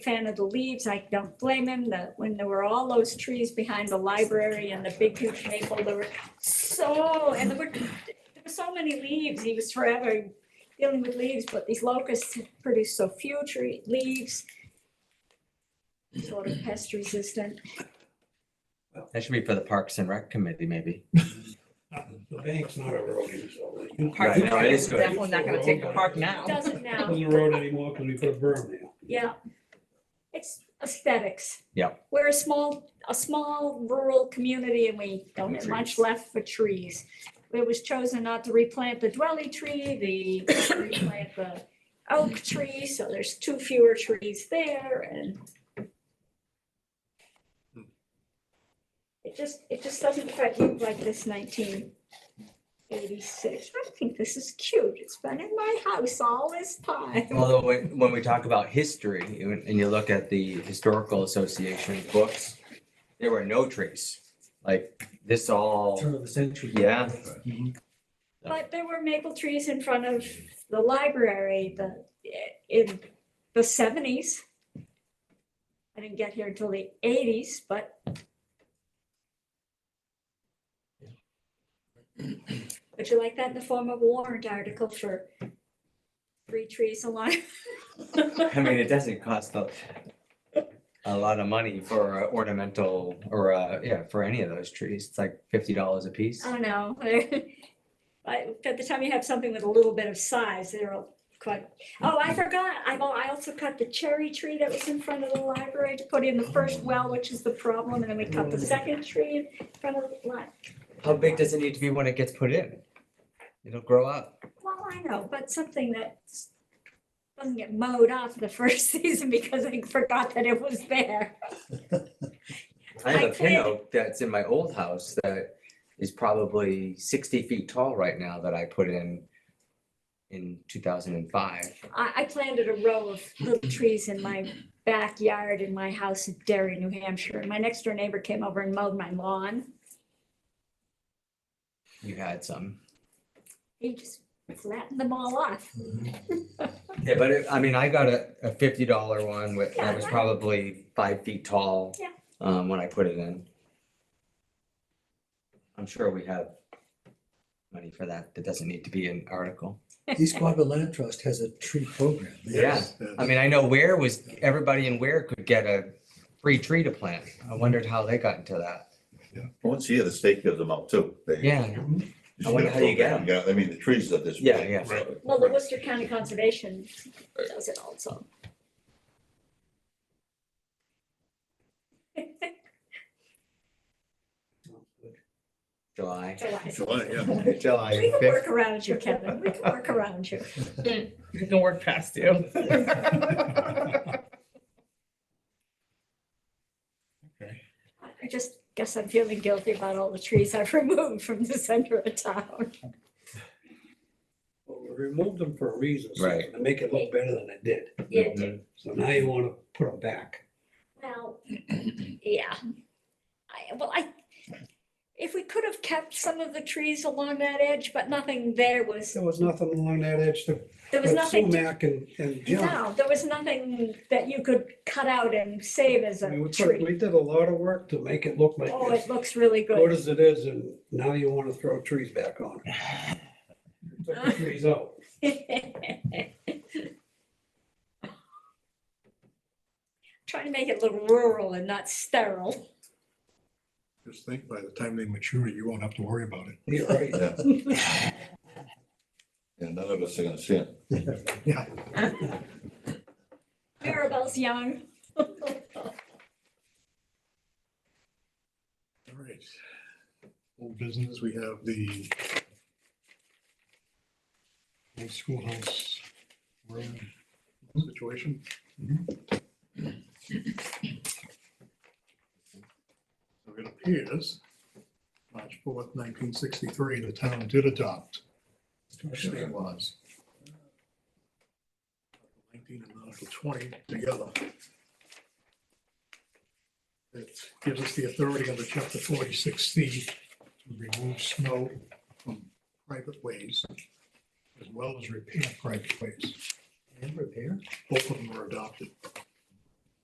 fan of the leaves. I don't blame him. The, when there were all those trees behind the library and the big huge maple, there were so, and there were, there were so many leaves. He was forever dealing with leaves, but these locusts produce so few tree, leaves. Sort of pest resistant. That should be for the Parks and Rec Committee, maybe. The bank's not a road use, so you Park Right, no, it is good. Definitely not gonna take the park now. Doesn't it now, Doesn't road anymore because we put a berm there. yeah. It's aesthetics. Yeah. We're a small, a small rural community and we don't have much Trees. left for trees. It was chosen not to replant the dwelly tree, the replant the oak tree, so there's two fewer trees there and it just, it just doesn't quite look like this nineteen eighty-six. I think this is cute. It's been in my house all this time. Although when, when we talk about history you- and you look at the Historical Association books, there were no trees. Like this all, Turn of the century. Yeah. But there were maple trees in front of the library, the, in the seventies. I didn't get here until the eighties, but. Would you like that in the form of a warrant article for three trees along? I mean, it doesn't cost a, a lot of money for a ornamental or, uh, yeah, for any of those trees. It's like fifty dollars a piece. I know. But by the time you have something with a little bit of size, they're all quite, oh, I forgot, I, al- I also cut the cherry tree that was in front of the library to put in the first well, which is the problem, and then we cut the second tree in front of the lot. How big does it need to be when it gets put in? It'll grow up. Well, I know, but something that doesn't get mowed off the first season because I forgot that it was there. I have I a pin did. oak that's in my old house that is probably sixty feet tall right now that I put in in two thousand and five. I, I planted a row of little trees in my backyard in my house in Derry, New Hampshire, and my next door neighbor came over and mowed my lawn. You had some. He just flattened them all off. Yeah, but it- I mean, I got a, a fifty dollar one with, that was Yeah. probably five feet tall. Yeah. Um, when I put it in. I'm sure we have money for that. That doesn't need to be an article. East Quabbin Land Trust has a tree program. They have Yeah, I mean, I know Ware was, everybody in Ware could get a free tree to plant. I wondered how they got into that. Once a year, the state gives them out too. They Yeah, just I wonder get a how you get program. Yeah, I mean, the trees are this. Yeah, big, yeah. so- Well, the Worcester County Conservation does it also. July. July, yeah. We July can work around you, Kevin. We can work around you. It can work past you. I just guess I'm feeling guilty about all the trees I've removed from the center of town. Well, we removed them for a reason. so Right. To make it look better than it did. Yeah, So now you want to put them back. well, yeah. I, well, I, if we could have kept some of the trees along that edge, but nothing there was, There was nothing along that edge to there was put nothing. to- sumac and, and junk. No, there was nothing that you could cut out and save as I mean, a we put- tree. we did a lot of work to make it look like Oh, this. it looks really Good good. as it is, and now you want to throw trees back on. it. Took the Trees out. Trying to make it look rural and not sterile. Just think, by the time they mature, you won't have to worry about it. You're right. Yeah. Yeah, none of us are gonna see it. Maribel's young. All right. Old business, we have the old schoolhouse road situation. So it appears, March fourth, nineteen sixty-three, the town did adopt two state laws. Article Nineteen and Article twenty together. It gives us the authority under chapter forty-six C to remove snow from private ways as well as repair private ways. And repair. Both of them were adopted.